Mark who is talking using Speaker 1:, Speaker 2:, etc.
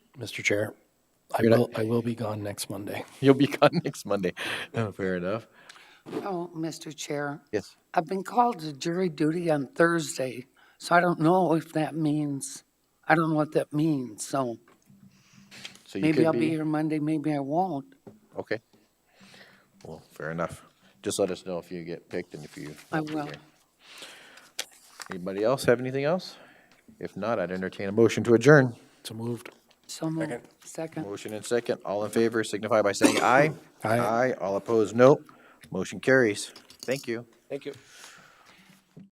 Speaker 1: Mr. Chair. I
Speaker 2: You're not-
Speaker 1: will, I will be gone next Monday.
Speaker 2: You'll be gone next Monday. Oh, fair enough.
Speaker 3: Oh, Mr. Chair,
Speaker 2: Yes.
Speaker 3: I've been called to jury duty on Thursday, so I don't know if that means, I don't know what that means, so
Speaker 2: So you
Speaker 3: maybe
Speaker 2: could
Speaker 3: I'll be here Monday, maybe I won't.
Speaker 2: Okay. Well, fair enough. Just let us know if you get picked and if you.
Speaker 3: I
Speaker 2: won't be
Speaker 3: will.
Speaker 2: here. Anybody else have anything else? If not, I'd entertain a motion to adjourn.
Speaker 1: So moved.
Speaker 3: So moved. Second.
Speaker 2: Motion and second. All in favor signify by saying aye.
Speaker 1: Aye.
Speaker 2: Aye. All opposed, no. Motion carries. Thank you.
Speaker 4: Thank you.